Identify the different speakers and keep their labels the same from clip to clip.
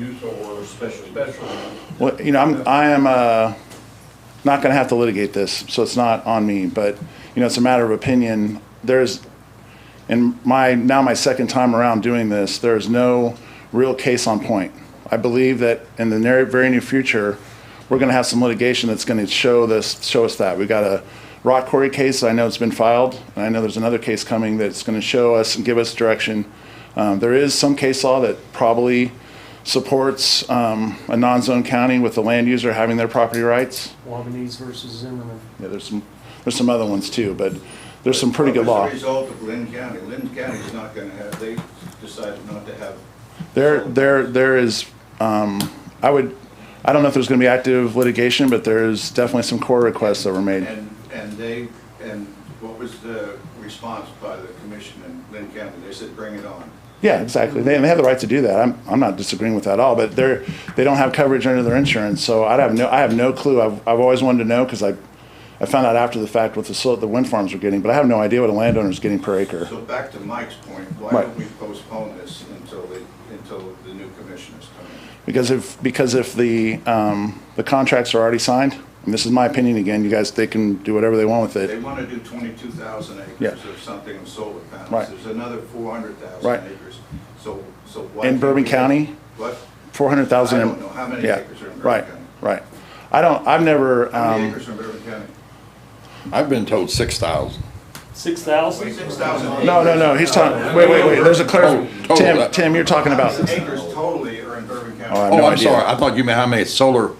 Speaker 1: use or special, special.
Speaker 2: Well, you know, I'm, I am, uh, not gonna have to litigate this, so it's not on me, but, you know, it's a matter of opinion. There's, in my, now my second time around doing this, there's no real case on point. I believe that in the near, very near future, we're gonna have some litigation that's gonna show this, show us that. We got a rock quarry case, I know it's been filed, and I know there's another case coming that's gonna show us and give us direction. Um, there is some case law that probably supports, um, a non-zone county with the land user having their property rights.
Speaker 3: Wabanese versus Zimmerman.
Speaker 2: Yeah, there's some, there's some other ones too, but there's some pretty good law.
Speaker 1: As a result of Lynn County, Lynn County's not gonna have, they decided not to have.
Speaker 2: There, there, there is, um, I would, I don't know if there's gonna be active litigation, but there's definitely some core requests that were made.
Speaker 1: And, and they, and what was the response by the commission in Lynn County? They said, bring it on.
Speaker 2: Yeah, exactly. They, they have the right to do that. I'm, I'm not disagreeing with that at all, but they're, they don't have coverage under their insurance, so I'd have no, I have no clue. I've, I've always wanted to know, cause I, I found out after the fact what the, so- the wind farms were getting, but I have no idea what a landowner's getting per acre.
Speaker 1: So back to Mike's point, why
Speaker 2: Right.
Speaker 1: don't we postpone this until the, until the new commissioners come in?
Speaker 2: Because if, because if the, um, the contracts are already signed, and this is my opinion again, you guys, they can do whatever they want with
Speaker 1: They
Speaker 2: it.
Speaker 1: wanna do twenty-two thousand
Speaker 2: Yeah.
Speaker 1: acres or something of solar panels.
Speaker 2: Right.
Speaker 1: There's another four hundred
Speaker 2: Right.
Speaker 1: thousand acres. So, so why?
Speaker 2: In
Speaker 1: can't
Speaker 2: Bourbon
Speaker 1: we-
Speaker 2: County?
Speaker 1: What?
Speaker 2: Four hundred thousand.
Speaker 1: I don't know how many acres are in Bourbon County.
Speaker 2: Right, right. I don't, I've never,
Speaker 1: How many
Speaker 2: um,
Speaker 1: acres are in Bourbon County?
Speaker 4: I've been told six thousand.
Speaker 3: Six thousand?
Speaker 1: Twenty-six thousand acres.
Speaker 2: no, no, no, he's talking, wait, wait, wait, there's a clar,
Speaker 4: Oh, oh,
Speaker 2: Tim,
Speaker 4: that-
Speaker 2: Tim, you're talking about,
Speaker 1: Acres totally are in Bourbon County.
Speaker 2: Oh, I have
Speaker 4: Oh,
Speaker 2: no
Speaker 4: I'm
Speaker 2: idea.
Speaker 4: sorry, I thought you meant how many solar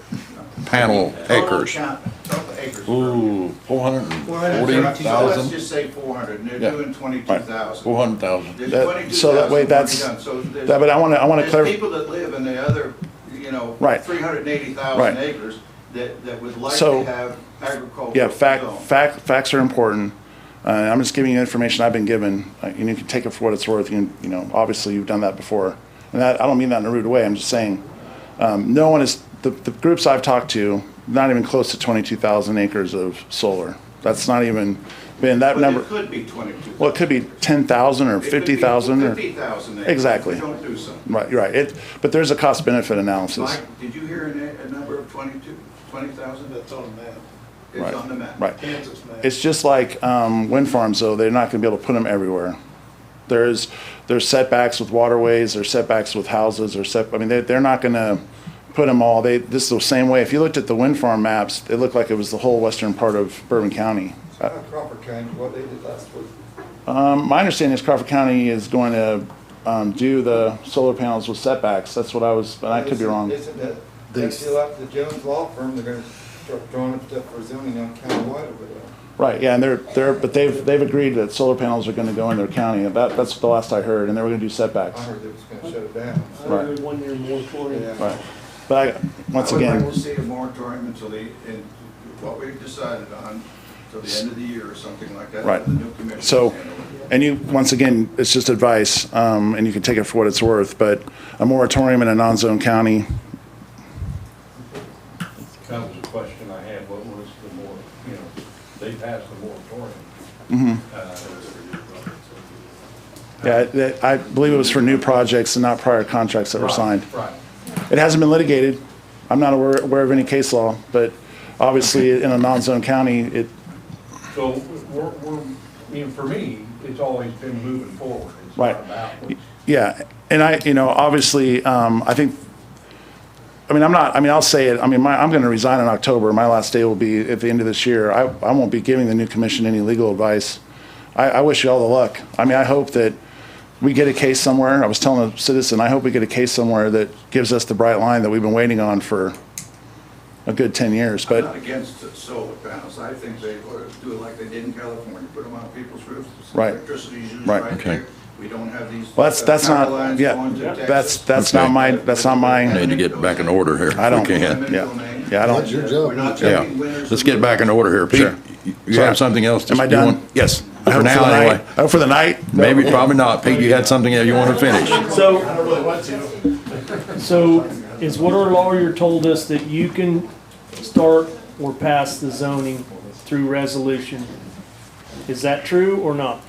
Speaker 4: panel
Speaker 1: Total
Speaker 4: acres.
Speaker 1: count- Total acres.
Speaker 4: Ooh, four hundred and forty
Speaker 1: So let's
Speaker 4: thousand,
Speaker 1: just say four hundred, and they're
Speaker 4: Yeah.
Speaker 1: doing twenty-two thousand.
Speaker 4: four hundred thousand.
Speaker 1: There's
Speaker 2: That-
Speaker 1: 22,000
Speaker 2: so that way
Speaker 1: already
Speaker 2: that's-
Speaker 1: done. So there's-
Speaker 2: that, but I wanna, I wanna
Speaker 1: There's
Speaker 2: clarify.
Speaker 1: people that live in the other, you know,
Speaker 2: Right.
Speaker 1: three hundred and eighty
Speaker 2: Right.
Speaker 1: thousand acres that, that would like
Speaker 2: So-
Speaker 1: to have agricultural.
Speaker 2: Yeah, fact,
Speaker 1: zone.
Speaker 2: fact, facts are important. Uh, I'm just giving you information I've been given, uh, and you can take it for what it's worth. You, you know, obviously you've done that before, and that, I don't mean that in a rude way. I'm just saying, um, no one is the, the groups I've talked to, not even close to 22,000 acres of solar. That's not even been that
Speaker 1: But
Speaker 2: number.
Speaker 1: it could be twenty-two.
Speaker 2: Well, it could be 10,000 or 50,000 or
Speaker 1: Fifty thousand acres. if
Speaker 2: Exactly.
Speaker 1: we don't do something.
Speaker 2: right, you're right. It, but there's a cost benefit analysis.
Speaker 1: Mike, did you hear a, na- a number of twenty-two, twenty thousand?
Speaker 5: That's on the map,
Speaker 1: It's on the map.
Speaker 2: Right.
Speaker 5: Kansas map.
Speaker 2: It's just like um, wind farms, though, they're not going to be able to put them everywhere. There's, there's setbacks with waterways, there's setbacks with houses, or set, I mean, they, they're not going to put them all, they, this is the same way. If you looked at the wind farm maps, it looked like it was the whole western part of Bourbon County.
Speaker 5: It's not Crawford County, what they did last week.
Speaker 2: Um, My understanding is Crawford County is going to um, do the solar panels with setbacks, that's what I was, but I could be wrong.
Speaker 5: Isn't that,
Speaker 2: They-
Speaker 5: that's still up to the Jones Law Firm, they're gonna start drawing up stuff for zoning on countywide over there.
Speaker 2: Right, yeah, and they're, they're, but they've, they've agreed that solar panels are going to go in their county, and that, that's the last I heard, and they were going to do setbacks.
Speaker 5: I heard they was gonna shut it down.
Speaker 3: I
Speaker 5: so-
Speaker 3: heard one year moratorium.
Speaker 5: Yeah.
Speaker 2: Right, but I, once
Speaker 1: I
Speaker 2: again.
Speaker 1: will see a moratorium until the, in, what we've decided on, till the end of the year or something like that.
Speaker 2: Right.
Speaker 1: The new commission.
Speaker 2: So, and you, once again, it's just advice, um, and you can take it for what it's worth, but a moratorium in a non-zone county,
Speaker 6: That was a question I had, what was the more, you know, they passed the moratorium.
Speaker 2: Mm-hmm.
Speaker 6: Uh,
Speaker 2: yeah, that, I believe it was for new projects and not prior contracts that were signed.
Speaker 6: Right.
Speaker 2: It hasn't been litigated. I'm not aware, aware of any case law, but obviously in a non-zone county, it,
Speaker 6: So we're, we're, I mean, for me, it's always been moving forward. It's
Speaker 2: Right.
Speaker 6: not backwards.
Speaker 2: yeah. And I, you know, obviously, um, I think, I mean, I'm not, I mean, I'll say it, I mean, my, I'm gonna resign in October. My last day will be at the end of this year. I, I won't be giving the new commission any legal advice. I, I wish you all the luck. I mean, I hope that we get a case somewhere. I was telling a citizen, I hope we get a case somewhere that gives us the bright line that we've been waiting on for a good ten years,
Speaker 1: I'm not
Speaker 2: but,
Speaker 1: against the solar panels, I think they ought to do it like they did in California, put them on people's roofs.
Speaker 2: Right.
Speaker 1: Electricity is used
Speaker 2: Right,
Speaker 1: right
Speaker 4: okay.
Speaker 1: there. We don't have these.
Speaker 2: well, that's,
Speaker 1: uh,
Speaker 2: that's
Speaker 1: power
Speaker 2: not,
Speaker 1: lines
Speaker 2: yeah,
Speaker 1: going to Texas.
Speaker 2: that's, that's not
Speaker 4: Okay.
Speaker 2: my, that's not
Speaker 4: Need
Speaker 2: my,
Speaker 4: to get back in order here. if
Speaker 2: I don't-
Speaker 4: we can.
Speaker 1: Eminent
Speaker 2: yeah.
Speaker 1: domain.
Speaker 2: yeah, I don't.
Speaker 5: your
Speaker 1: We're not
Speaker 4: Yeah,
Speaker 1: taking winners.
Speaker 4: let's get back in order here. Pete,
Speaker 2: Sure.
Speaker 4: you- you
Speaker 2: Sorry.
Speaker 4: have something else? to-
Speaker 2: Am I
Speaker 4: you
Speaker 2: done?
Speaker 4: want- Yes,
Speaker 2: I
Speaker 4: for
Speaker 2: hope
Speaker 4: now
Speaker 2: the night.
Speaker 4: anyway.
Speaker 2: I hope for the night.
Speaker 4: Maybe, probably not. Pete, you had something that you want to finish?
Speaker 3: So, so is what our lawyer told us that you can start or pass the zoning through resolution? Is that true or not?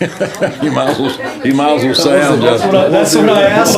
Speaker 4: You might as well, you might as well say I'm
Speaker 3: That's
Speaker 4: just.
Speaker 3: what I, that's what I asked